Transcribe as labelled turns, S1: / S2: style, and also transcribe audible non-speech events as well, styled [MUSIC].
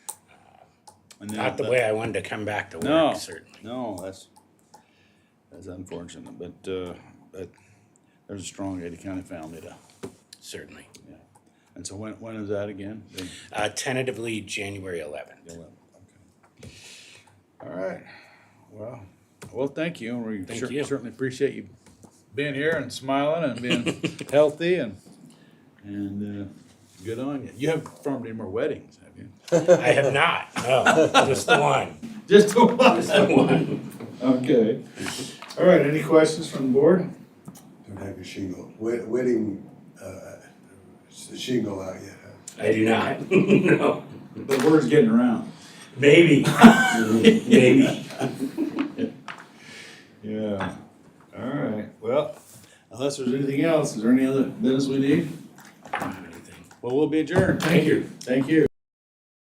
S1: And then-
S2: Not the way I wanted to come back to
S1: No,
S2: work, certainly.
S1: no, that's, that's unfortunate, but, uh, but there's a strong Ada County family to,
S2: Certainly.
S1: yeah. And so when, when is that again? The-
S2: Uh, tentatively, January 11th.
S1: the 11th, okay. All right, well, well, thank you, and we
S2: Thank
S1: cer-
S2: you.
S1: certainly appreciate you being here and smiling and
S2: [LAUGHS]
S1: being healthy and, and, uh, good on you. You haven't performed any more weddings, have you?
S2: I have not. [LAUGHS] No, just the one.
S1: Just the one.
S2: The one.
S1: Okay. All right, any questions from the board?
S3: Don't have your shingle, Wed- wedding, uh, it's the shingle out yet, huh?
S2: I do not. [LAUGHS] no.
S1: The word's getting around.
S2: [LAUGHS] Maybe. Maybe.
S1: Yeah, all right, well, unless there's anything else, is there any other business we need?
S2: Anything.
S1: Well, we'll be adjourned.
S2: Thank you.
S1: Thank you.